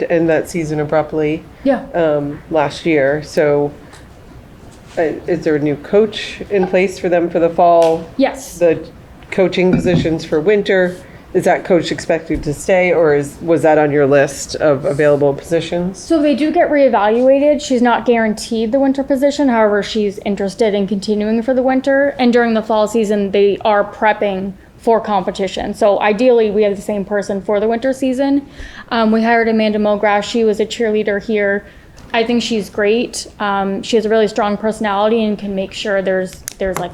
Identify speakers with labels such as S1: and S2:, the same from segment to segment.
S1: to end that season abruptly
S2: Yeah.
S1: um, last year. So, uh, is there a new coach in place for them for the fall?
S2: Yes.
S1: The coaching positions for winter is that coach expected to stay, or is was that on your list of available positions?
S2: So they do get reevaluated. She's not guaranteed the winter position. However, she's interested in continuing for the winter. And during the fall season, they are prepping for competition. So ideally, we have the same person for the winter season. Um, we hired Amanda Mulgrass. She was a cheerleader here. I think she's great. Um, she has a really strong personality and can make sure there's there's like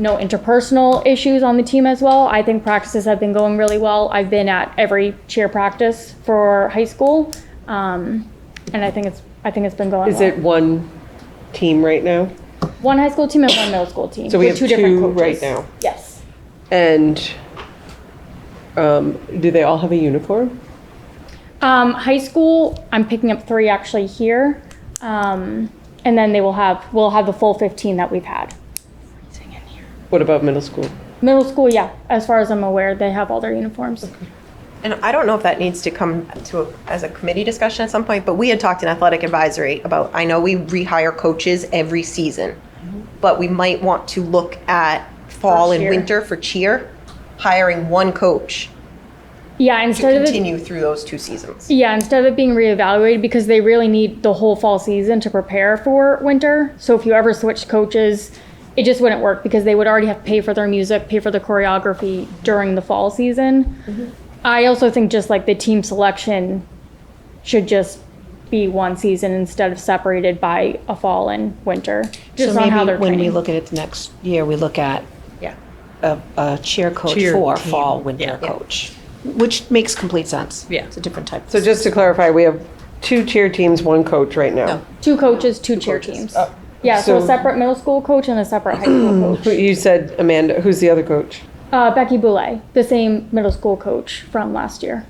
S2: no interpersonal issues on the team as well. I think practices have been going really well. I've been at every cheer practice for high school, um, and I think it's I think it's been going.
S1: Is
S2: well.
S1: it one team right now?
S2: one high school team and one middle school team?
S1: So we
S2: with
S1: have
S2: different
S1: two
S2: coaches.
S1: right now.
S2: Yes,
S1: And um, do they all have a uniform?
S2: um, high school. I'm picking up three actually here, um, and then they will have we'll have the full 15 that we've had.
S1: What about middle school?
S2: Middle school, yeah. As far as I'm aware, they have all their uniforms.
S3: And I don't know if that needs to come to, a- as a committee discussion at some point, but we had talked in athletic advisory about, I know we rehire coaches every season, but we might want to look at fall and
S2: cheer.
S3: winter for cheer, hiring one coach
S2: Yeah,
S3: to
S2: instead of it
S3: continue through those two seasons.
S2: Yeah, instead of it being reevaluated because they really need the whole fall season to prepare for winter. So if you ever switched coaches, it just wouldn't work because they would already have to pay for their music, pay for the choreography during the fall season.
S4: Mm-hmm.
S2: I also think just like the team selection should just be one season instead of separated by a fall and winter. Just on
S4: so maybe
S2: how they're
S4: when
S2: training.
S4: we look at it the next year, we look at
S3: Yeah.
S4: a, a cheer coach
S5: Cheer
S4: for
S5: team.
S4: fall winter
S3: Yeah.
S4: coach, which makes complete sense.
S5: Yeah.
S4: it's a different type.
S1: So just to clarify, we have two cheer teams, one coach right now.
S2: two coaches, two, cheer teams.
S4: Uh,
S2: yeah, so,
S1: so-
S2: a separate middle school coach and a separate high school coach.
S1: Who- You said Amanda. Who's the other coach?
S2: Uh, Becky Boulay, the same middle school coach from last year.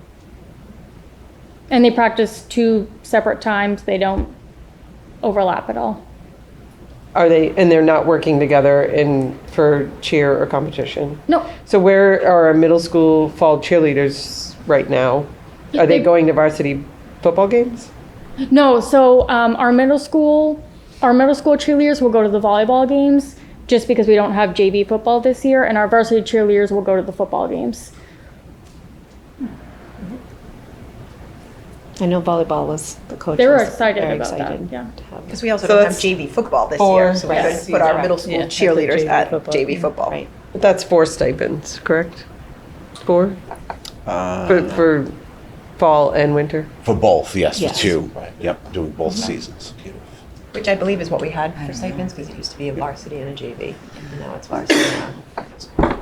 S2: And they practice two separate times. They don't overlap at all.
S1: Are they and they're not working together in for cheer or competition?
S2: No,
S1: So where are our middle school fall cheerleaders right now? Are they
S2: They-
S1: going to varsity football games?
S2: no. So um, our middle school, our middle school cheerleaders will go to the volleyball games just because we don't have JV football this year, and our varsity cheerleaders will go to the football games.
S4: I know volleyball was the coach.
S2: They were
S4: was
S2: excited
S4: very
S2: about that,
S4: excited
S2: yeah.
S4: to have
S3: Because we also
S1: So
S3: don't have
S1: that's
S3: JV football this
S1: four
S3: year, so we
S1: Yes.
S3: could put our
S1: Yeah.
S3: middle school
S5: Yeah, that's a
S3: cheerleaders
S5: JV
S3: at
S5: football
S3: JV
S5: team.
S3: football. Mm-hmm.
S4: Right.
S1: But that's four stipends, correct? Four for, for fall and winter.
S6: For both, yes, for
S4: Yes.
S6: two. Yep, doing both seasons.
S3: Which I believe is what we had for stipends, because it used to be a varsity and a JV, and now it's varsity. and a-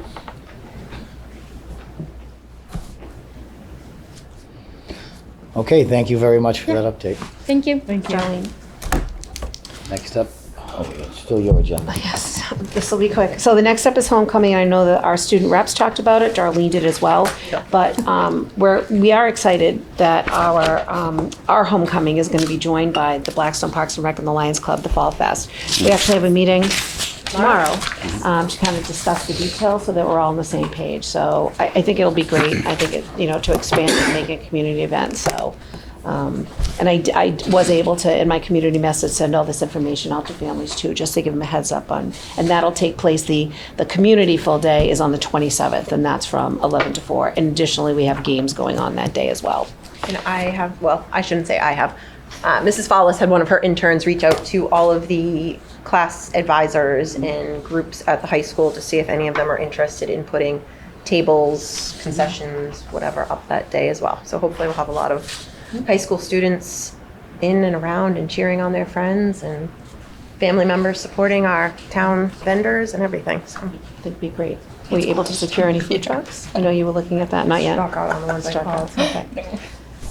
S7: Okay, thank you very much for that update.
S2: Thank you.
S5: Thank you.
S7: Next up, oh, it's still your agenda.
S4: Yes, this will be quick. So the next step is homecoming. I know that our student reps talked about it. Darlene did as well. But um, we're, we are excited that our, um, our homecoming is going to be joined by the Blackstone Parks and Rec and the Lions Club, the Fall Fest. We actually have a meeting tomorrow um, to kind of discuss the details so that we're all on the same page. So I, I think it'll be great. I think it, you know, to expand and make it a community event. So um, And I, I was able to, in my community message, send all this information out to families too, just to give them a heads up on, and that'll take place, the, the community full day is on the 27th, and that's from 11 to 4. And additionally, we have games going on that day as well.
S3: And I have, well, I shouldn't say I have. Uh, Mrs. Follis had one of her interns reach out to all of the class advisors and groups at the high school to see if any of them are interested in putting tables, concessions, whatever, up that day as well. So hopefully we'll have a lot of high school students in and around and cheering on their friends and family members supporting our town vendors and everything. So
S4: That'd be great. Were you able to secure any food trucks? I know you were looking at that, not yet.
S3: knock out on the ones I
S4: Struck
S3: called.
S4: out, okay.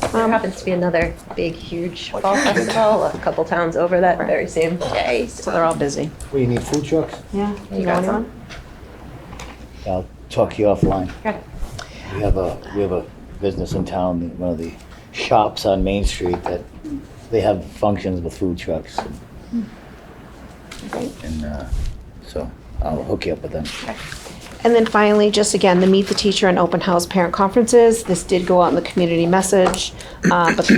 S4: Um,
S3: There happens to be another big, huge fall festival a couple towns over that very same day.
S4: So they're all busy.
S7: What, you need food trucks?
S4: Yeah.
S3: You got some?
S7: I'll talk to you offline.
S3: Okay.
S7: We have a, we have a business in town, one of the shops on Main Street that they have functions with food trucks. and-
S4: Great.
S7: And, uh, so I'll hook you up with them.
S4: And then finally, just again, the Meet the Teacher and Open House Parent Conferences. This did go out in the community message, uh, but the